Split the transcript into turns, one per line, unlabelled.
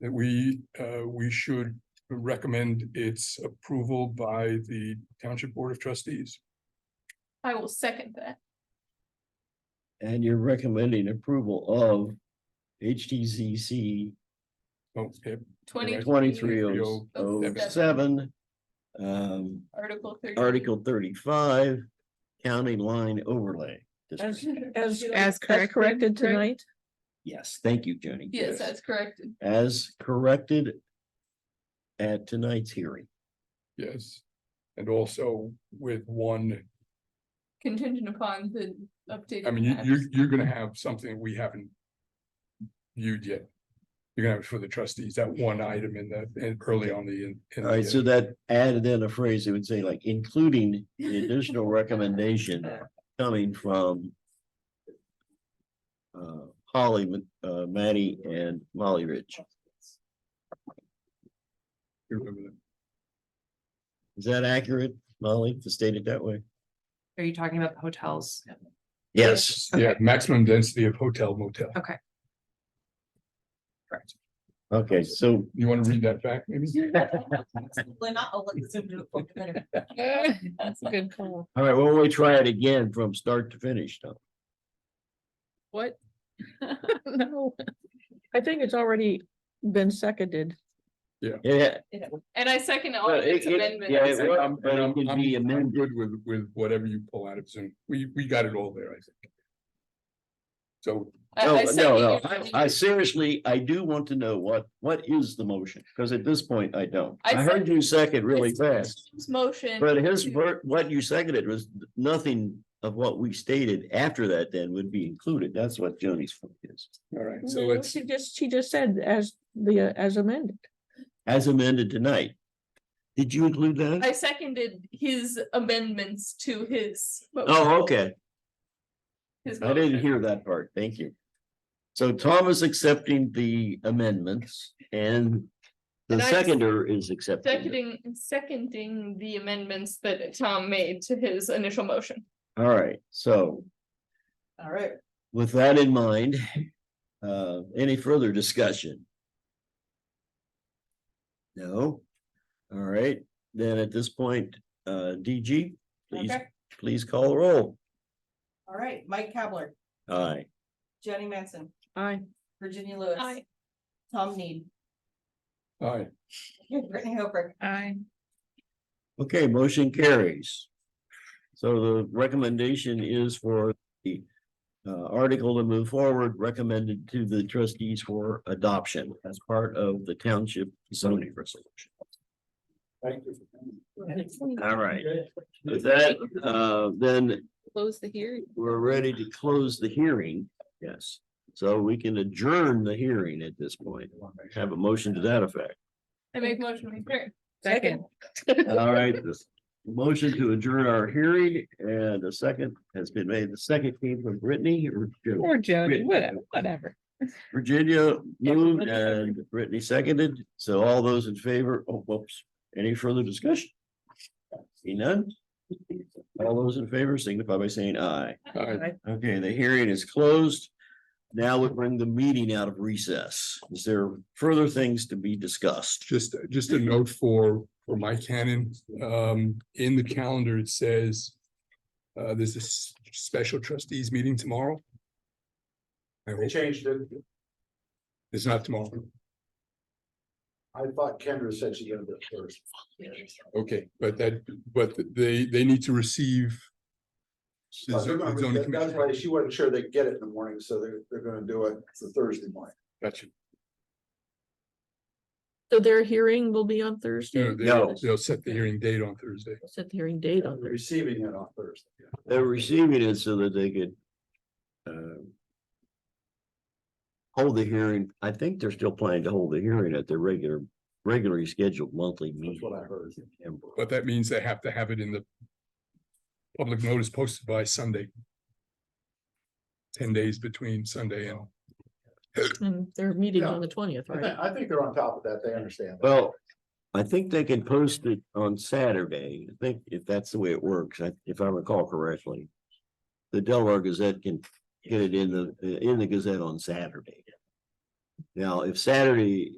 that we, uh, we should recommend its approval by the Township Board of Trustees.
I will second that.
And you're recommending approval of HTCC
Oh, yep,
Twenty.
twenty-three oh seven. Um,
Article thirty.
Article thirty-five, county line overlay. district.
As, as,
As
as
corrected,
corrected
correct?
tonight,
Yes, thank you, Jenny.
Yes, that's correct.
As corrected at tonight's hearing.
yes. And also with one,
Contingent upon the updated.
I mean, you,
maps.
you're, you're gonna have something we haven't viewed yet. You're gonna have it for the trustees, that one item in the, in early on the. in- in
All right,
the, uh,
so that added in a phrase, it would say like including the additional recommendation coming from uh, Holly, uh, Matty and Molly Rich.
you remember that.
Is that accurate, Molly, to state it that way?
Are you talking about the hotels?
Yes.
Yeah, maximum density of hotel motel.
Okay, so
You wanna read that back, maybe?
That's a good call.
All right, well, we try it again from start to finish though.
what? No, I think it's already been seconded.
Yeah.
And I second all
Well,
of Oh, its
it- it-
amendments.
yeah, it
And
was-
I'm-
but
and
it
I'm-
could
I'm-
be
I'm
amended.
Good with, with whatever you pull out of Zoom. We, we got it all there, I think. So,
I- I
No,
second
no, no.
your-
I- I seriously, I do want to know what, what is the motion? Because at this point, I don't.
I
I heard you second really fast,
His Motion.
but his,
to-
ver- what you seconded was nothing of what we stated after that then would be included. That's what Joni's point is.
all right, so
No,
let's,
She just, she just said as the, uh, as amended.
As amended tonight. Did you include that?
I seconded his amendments to his. motion.
Oh, okay.
His
I didn't
motion.
hear that part, thank you. So Tom is accepting the amendments and the
And I-
seconder is accepting. it.
Seconding, seconding the amendments that Tom made to his initial motion.
All right, so
All right,
with that in mind, uh, any further discussion? No? All right, then at this point, uh, DG, please,
Okay.
please call the roll.
all right, Mike Kavler,
Aye.
Jenny Manson,
Aye.
Virginia Lewis.
Aye.
Tom Need,
all right,
Brittany Hooper,
I,
Okay, motion carries. So the recommendation is for the uh, article to move forward, recommended to the trustees for adoption as part of the township zoning resolution.
Thank you.
All right, with that, uh, then
close the hearing.
we're ready to close the hearing. Yes, so we can adjourn the hearing at this point. Have a motion to that effect.
I make motion to adjourn.
Second.
All right, this motion to adjourn our hearing and the second has been made. The second came from Brittany or Jim?
Or Jody,
Wait.
whatever, whatever.
Virginia moved and Brittany seconded. So all those in favor, oh, whoops, any further discussion? See none? All those in favor signify by saying aye.
all right.
Okay, the hearing is closed. Now we bring the meeting out of recess. Is there further things to be discussed?
Just, just a note for, for Mike Cannon, um, in the calendar, it says. Uh, there's a s- special trustees meeting tomorrow. I
They
hope
changed it.
it's not tomorrow.
I thought Kendra said she did it first.
Okay, but that, but they, they need to receive.
Oh,
the zo- the zoning
That's
commission.
why she wasn't sure they'd get it in the morning, so they're, they're gonna do it for Thursday morning.
Gotcha.
So their hearing will be on Thursday,
No,
No.
they'll, they'll set the hearing date on Thursday.
set the hearing date on
They're
Thursday.
Receiving it on Thursday.
They're receiving it so that they could. um, Hold the hearing. I think they're still planning to hold the hearing at their regular, regularly scheduled monthly meeting.
That's what I heard.
in September.
But that means they have to have it in the. Public notice posted by Sunday. Ten days between Sunday and,
And their meeting on the twentieth,
I
right?
think, I think they're on top of that. They understand. that.
Well, I think they can post it on Saturday. I think if that's the way it works, I- if I recall correctly. The Delaware Gazette can get it in the, in the Gazette on Saturday. Now, if Saturday